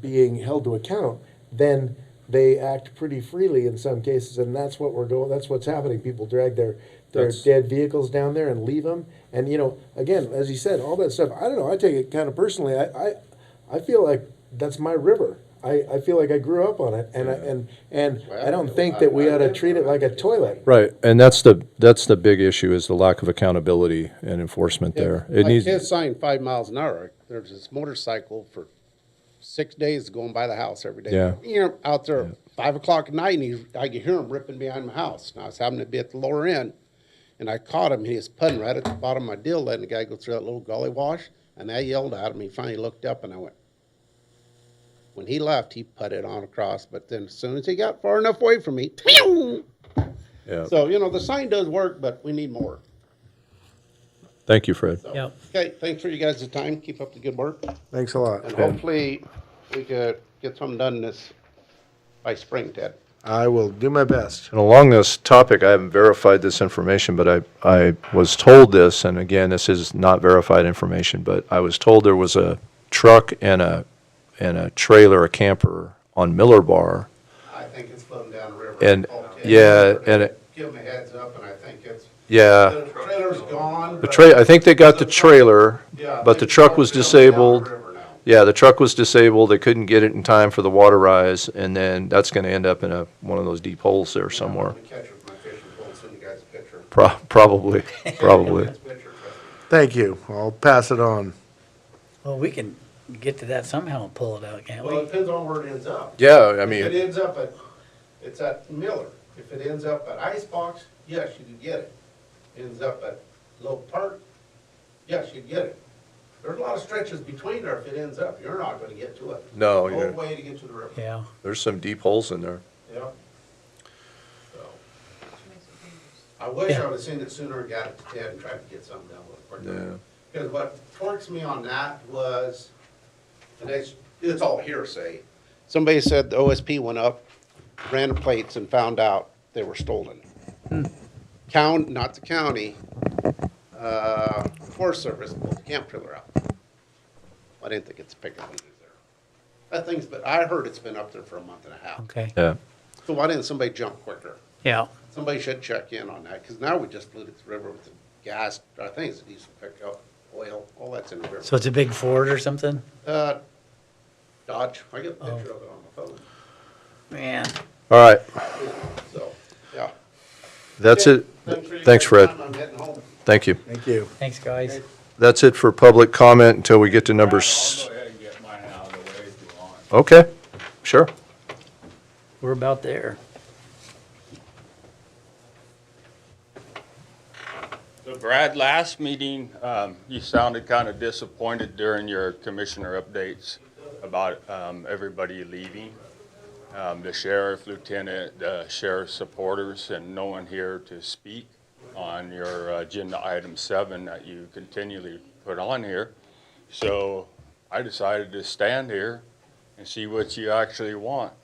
being held to account, then they act pretty freely in some cases, and that's what we're going, that's what's happening. People drag their, their That's- dead vehicles down there and leave them. And, you know, again, as you said, all that stuff, I don't know, I take it kind of personally, I, I, I feel like that's my river. I, I feel like I grew up on it, and, I- and, and I don't think that we ought to treat it like a toilet. Right, and that's the, that's the big issue, is the lack of accountability and enforcement there. It My needs, kid's sign five miles an hour. There's this motorcycle for six days going by the house every day. Yeah. You know, out there at five o'clock at night, and he, I could hear him ripping behind my house. And I was having to be at the lower end, and I caught him. and He was putting right at the bottom of my deal, letting the guy go through that little gully wash. And I yelled at him. He finally looked up, and I went. When he left, he putted on across, but then as soon as he got far enough away from me, yeah. so you know the sign does work, but we need more. Thank you, Fred. So, Yep. Okay, thanks for you guys' time. Keep up the good work. Thanks a lot. And hopefully, we could get something done this, by spring, Ted. I will do my best. And along this topic, I haven't verified this information, but I, I was told this, and again, this is not verified information, but I was told there was a truck and a, and a trailer, a camper on Miller Bar. I think it's floating down the river. And- yeah, and it- Give them a heads up, and I think it's, Yeah, the trailer's gone. the tra, I think they got the trailer, but the truck was disabled. Yeah, the truck was disabled. They couldn't get it in time for the water rise, and then that's going to end up in a one of those deep holes there somewhere. Pro- probably, probably. Thank you. I'll pass it on. Well, we can get to that somehow and pull it out, can't Well, we? it depends on where it ends up. Yeah, I If it mean, ends up at, it's at Miller. If it ends up at Icebox, yes, you can get it. Ends up at Low Park, yes, you get it. There's a lot of stretches between there. If it ends up, you're not gonna get to it. No, Whole you're- way to get to the river. Yeah. there's some deep holes in there. Yeah. So. I wish I would've seen it sooner and got it to Ted and tried to get something done with it. Yeah. Because what torques me on that was, and it's, it's all hearsay. Somebody said the OSP went up, ran the plates and found out they were stolen. Count, not the county, uh, Forest Service pulled the camp trailer out. I didn't think it's picking up either. That thing's, but I heard it's been up there for a month and a half. Okay. Yeah. So why didn't somebody jump quicker? Yeah. Somebody should check in on that, because now we just polluted the river with the gas, I think it's diesel pickup, oil, all that's in the river. So it's a big Ford or something? Uh, Dodge, I get a picture of it on my phone, Man. All right, so, yeah. that's it. for your Thanks, Fred. time. I'm heading home. Thank you. Thank you. Thanks, guys. That's it for public comment until we get to number s- I'll go ahead and get mine out of the way if you want. Okay, sure. We're about there. So Brad, last meeting, um, you sounded kind of disappointed during your commissioner updates about, um, everybody leaving. Um, the sheriff, lieutenant, the sheriff's supporters, and no one here to speak on your agenda item seven that you continually put on here. So I decided to stand here and see what you actually want.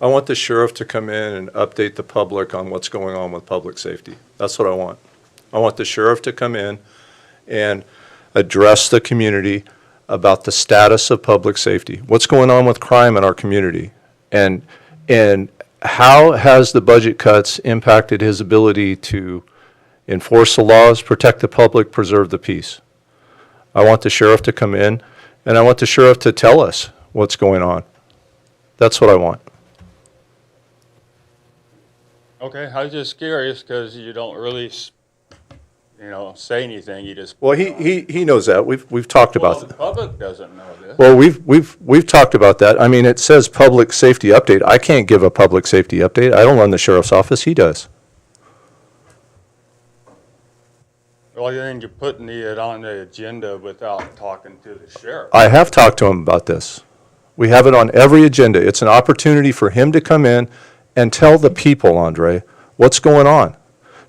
I want the sheriff to come in and update the public on what's going on with public safety. That's what I want. I want the sheriff to come in and address the community about the status of public safety. What's going on with crime in our community? And, and how has the budget cuts impacted his ability to enforce the laws, protect the public, preserve the peace? I want the sheriff to come in, and I want the sheriff to tell us what's going on. That's what I want. Okay, I was just curious because you don't really, s- you know, say anything. You just Well, he, he, he knows that. We've, we've talked well, about, the that. public doesn't know this. well, we've, we've, we've talked about that. I mean, it says public safety update. I can't give a public safety update. I don't run the sheriff's office. He does. Well, then you're putting it on the agenda without talking to the sheriff. I have talked to him about this. We have it on every agenda. It's an opportunity for him to come in and tell the people, Andre, what's going on.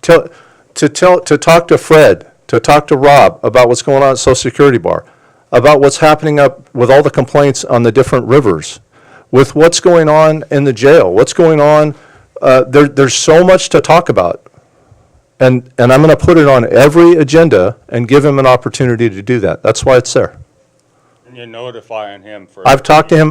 Tell, to tell, to talk to Fred, to talk to Rob about what's going on at Social Security Bar, about what's happening up with all the complaints on the different rivers, with what's going on in the jail, what's going on. Uh, there, there's so much to talk about. And, and I'm going to put it on every agenda and give him an opportunity to do that. That's why it's there. And you're notifying him for. I've talked to him